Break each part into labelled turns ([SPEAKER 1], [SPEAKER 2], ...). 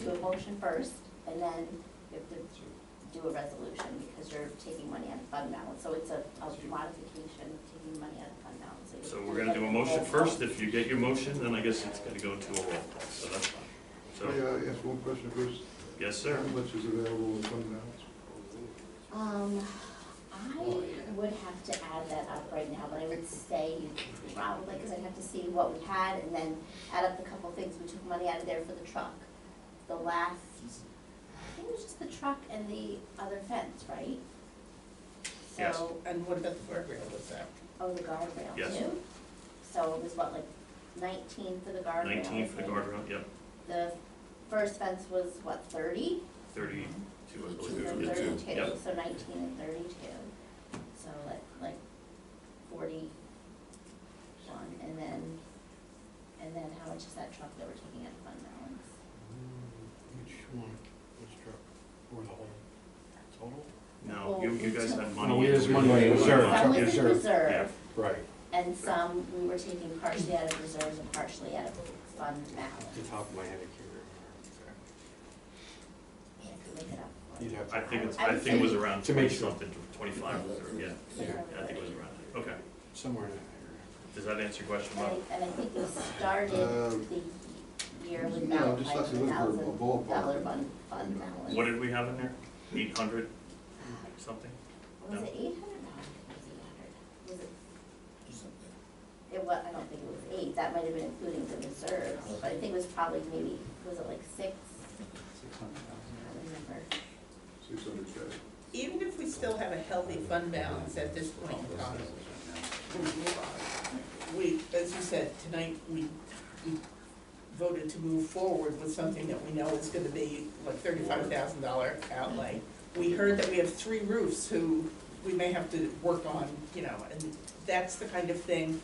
[SPEAKER 1] do a motion first, and then you have to do a resolution, because you're taking money out of fund balance, so it's a, a modification, of taking money out of fund balance. you
[SPEAKER 2] So
[SPEAKER 1] have to
[SPEAKER 2] we're gonna do a
[SPEAKER 1] like
[SPEAKER 2] motion
[SPEAKER 1] roll call.
[SPEAKER 2] first, if you get your motion, then I guess it's gonna go to a roll call, so that's fine.
[SPEAKER 3] May
[SPEAKER 2] So,
[SPEAKER 3] I ask one question first?
[SPEAKER 2] yes,
[SPEAKER 3] How
[SPEAKER 2] sir.
[SPEAKER 3] much is available in fund balance?
[SPEAKER 1] Um, I would have to add that up right now, but I would say probably, because I'd have to see what we had and then add up the couple things, we took money out of there for the truck. The last, I think it was just the truck and the other fence, right?
[SPEAKER 2] Yes.
[SPEAKER 1] So,
[SPEAKER 4] And what about the guardrail, was that?
[SPEAKER 1] oh, the guardrail too?
[SPEAKER 2] Yes.
[SPEAKER 1] So it was what, like nineteen for the guardrail? I
[SPEAKER 2] Nineteen for the
[SPEAKER 1] think.
[SPEAKER 2] guardrail, yep,
[SPEAKER 1] The first fence was what, thirty?
[SPEAKER 2] thirty-two, I
[SPEAKER 1] Thirty-two and
[SPEAKER 2] believe.
[SPEAKER 5] Thirty-two.
[SPEAKER 1] thirty-two,
[SPEAKER 2] Yep.
[SPEAKER 1] so nineteen and thirty-two, so like, like forty-one, and then, and then how much is that truck that we're taking out of fund balance?
[SPEAKER 3] Each one, each truck, or the whole total?
[SPEAKER 2] No, you, you guys had money.
[SPEAKER 5] No, we had
[SPEAKER 2] in
[SPEAKER 5] Oh, money in reserve.
[SPEAKER 2] Yeah.
[SPEAKER 1] Some
[SPEAKER 5] truck
[SPEAKER 1] was in
[SPEAKER 5] reserve.
[SPEAKER 2] Yeah,
[SPEAKER 1] reserve,
[SPEAKER 5] Right,
[SPEAKER 1] and some we were taking partially out of reserves and partially out of fund
[SPEAKER 5] off the
[SPEAKER 1] balance.
[SPEAKER 5] top of my head, I can't remember.
[SPEAKER 1] Yeah, could make it up.
[SPEAKER 5] You'd have
[SPEAKER 2] I
[SPEAKER 5] to.
[SPEAKER 2] think it's, I think it was around
[SPEAKER 5] To make
[SPEAKER 2] twenty
[SPEAKER 5] sure.
[SPEAKER 2] something, twenty-five, or- yeah,
[SPEAKER 5] Yeah,
[SPEAKER 2] I think it was around that, okay.
[SPEAKER 5] somewhere in that
[SPEAKER 2] Does that answer your question,
[SPEAKER 1] And
[SPEAKER 2] Bob?
[SPEAKER 1] I, and I think we started
[SPEAKER 3] Um,
[SPEAKER 1] the year with
[SPEAKER 3] no,
[SPEAKER 1] about
[SPEAKER 3] I'm just
[SPEAKER 1] five
[SPEAKER 3] looking
[SPEAKER 1] hundred
[SPEAKER 3] for a
[SPEAKER 1] thousand
[SPEAKER 3] ballpark.
[SPEAKER 1] dollar fund, fund balance.
[SPEAKER 2] What did we have in there? Eight hundred something?
[SPEAKER 1] Was
[SPEAKER 2] No.
[SPEAKER 1] it eight hundred? No, I don't think it was eight hundred. Was it? It was, I don't think it was eight, that might have been including the reserves, but I think it was probably maybe, was it like six?
[SPEAKER 5] Six hundred
[SPEAKER 1] I
[SPEAKER 5] thousand.
[SPEAKER 1] don't remember.
[SPEAKER 3] Six hundred K.
[SPEAKER 4] Even if we still have a healthy fund balance at this point in time, we, as you said, tonight, we, we voted to move forward with something that we know is gonna be like thirty-five thousand dollar outlay. We heard that we have three roofs who we may have to work on, you know, and that's the kind of thing.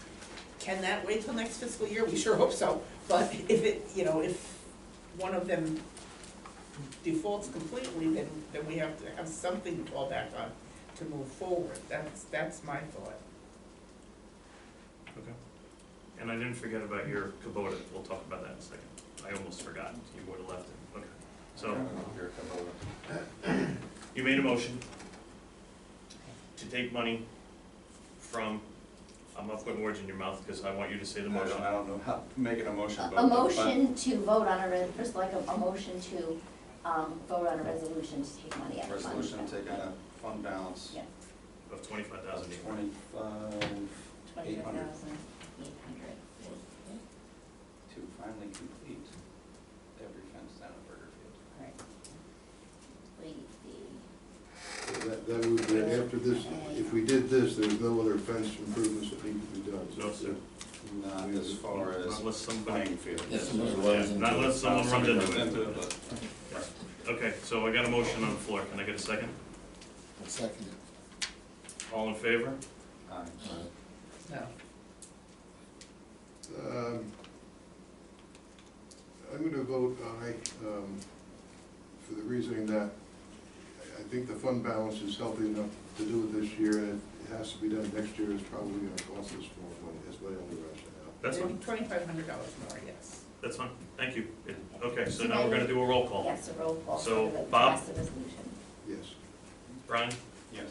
[SPEAKER 4] Can that wait till next fiscal year? We sure hope so, but if it, you know, if one of them defaults completely, then, then we have to have something to fall back on to move forward. That's, that's my thought.
[SPEAKER 2] Okay. And I didn't forget about your Kubota, we'll talk about that in a second. I almost forgot, you would have left it, okay. So, you made a motion to take money from, I'm not putting words in your mouth, because I want you to say the
[SPEAKER 6] I
[SPEAKER 2] motion.
[SPEAKER 6] don't, I don't know how, making a motion.
[SPEAKER 1] A-
[SPEAKER 6] about
[SPEAKER 1] A
[SPEAKER 6] the fund-
[SPEAKER 1] motion to vote on a, re- first like a, a motion to, um, vote on a resolution to take money out of funds.
[SPEAKER 6] Resolution taking a fund balance
[SPEAKER 1] Yeah,
[SPEAKER 2] Of twenty-five
[SPEAKER 6] of
[SPEAKER 2] thousand eight hundred.
[SPEAKER 6] twenty-five
[SPEAKER 1] twenty-five thousand, eight hundred.
[SPEAKER 6] to finally complete every fence down at Burger Field.
[SPEAKER 1] Alright. Complete the,
[SPEAKER 3] That, that would be, after this, if we did this, there's no other fence improvements that need to be done. So
[SPEAKER 2] No, sir.
[SPEAKER 6] Not as far as
[SPEAKER 2] Unless somebody,
[SPEAKER 6] playing field.
[SPEAKER 7] Yes,
[SPEAKER 6] Not
[SPEAKER 7] somebody runs
[SPEAKER 2] Yeah,
[SPEAKER 7] into
[SPEAKER 2] not unless
[SPEAKER 7] it.
[SPEAKER 2] someone runs
[SPEAKER 6] somebody runs
[SPEAKER 2] into it.
[SPEAKER 6] it, but-
[SPEAKER 2] Okay, so I got a motion on the floor, can I get a second?
[SPEAKER 7] I'll second it.
[SPEAKER 2] All in favor?
[SPEAKER 6] Aye.
[SPEAKER 7] Uh,
[SPEAKER 4] No.
[SPEAKER 3] Um, I'm gonna vote aye, um, for the reasoning that I- I think the fund balance is healthy enough to do it this year, and it has to be done next year, it's probably gonna cost us more money, that's my only rationale.
[SPEAKER 2] That's fine,
[SPEAKER 4] Twenty-five hundred dollars more, yes.
[SPEAKER 2] that's fine, thank you. Okay, so now we're gonna do a roll call.
[SPEAKER 1] yes, a roll call for
[SPEAKER 2] So,
[SPEAKER 1] the rest
[SPEAKER 2] Bob?
[SPEAKER 1] of the resolution.
[SPEAKER 3] Yes.
[SPEAKER 2] Brian,
[SPEAKER 6] Yes.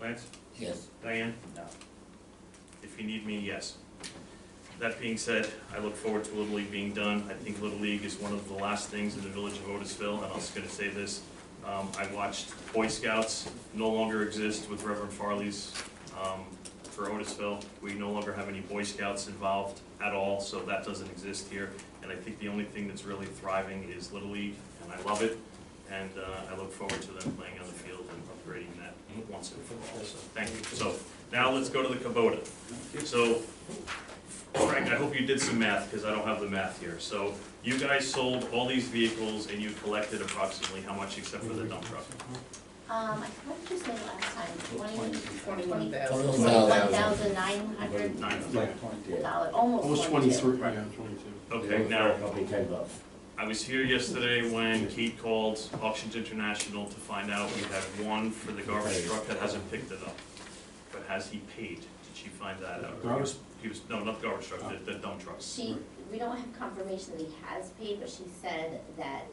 [SPEAKER 2] Lance,
[SPEAKER 7] Yes,
[SPEAKER 2] Diane?
[SPEAKER 4] No.
[SPEAKER 2] If you need me, yes. That being said, I look forward to Little League being done. I think Little League is one of the last things in the village of Otisville, and I was gonna say this. Um, I watched Boy Scouts no longer exist with Reverend Farley's, um, for Otisville. We no longer have any Boy Scouts involved at all, so that doesn't exist here. And I think the only thing that's really thriving is Little League, and I love it. And, uh, I look forward to them playing on the field and upgrading that once and for all, so thank you. So, now let's go to the Kubota. So, Frank, I hope you did some math, because I don't have the math here. So, you guys sold all these vehicles and you collected approximately how much except for the dump truck?
[SPEAKER 1] Um, I forgot what you said last time, twenty,
[SPEAKER 4] Twenty-one
[SPEAKER 7] Twenty-one
[SPEAKER 4] thousand.
[SPEAKER 7] thousand.
[SPEAKER 1] One thousand nine hundred
[SPEAKER 2] Nine hundred.
[SPEAKER 5] Yeah.
[SPEAKER 1] dollars, almost
[SPEAKER 5] It was
[SPEAKER 1] twenty-two.
[SPEAKER 5] twenty-three, yeah, twenty-two.
[SPEAKER 2] Okay, now,
[SPEAKER 7] probably ten bucks.
[SPEAKER 2] I was here yesterday when Kate called Auctions International to find out we had one for the garbage truck that hasn't picked it up. But has he paid? Did she find that out?
[SPEAKER 5] Garbage?
[SPEAKER 2] He was, no, not the garbage truck, the, the dump trucks.
[SPEAKER 1] She, we don't have confirmation that he has paid, but she said that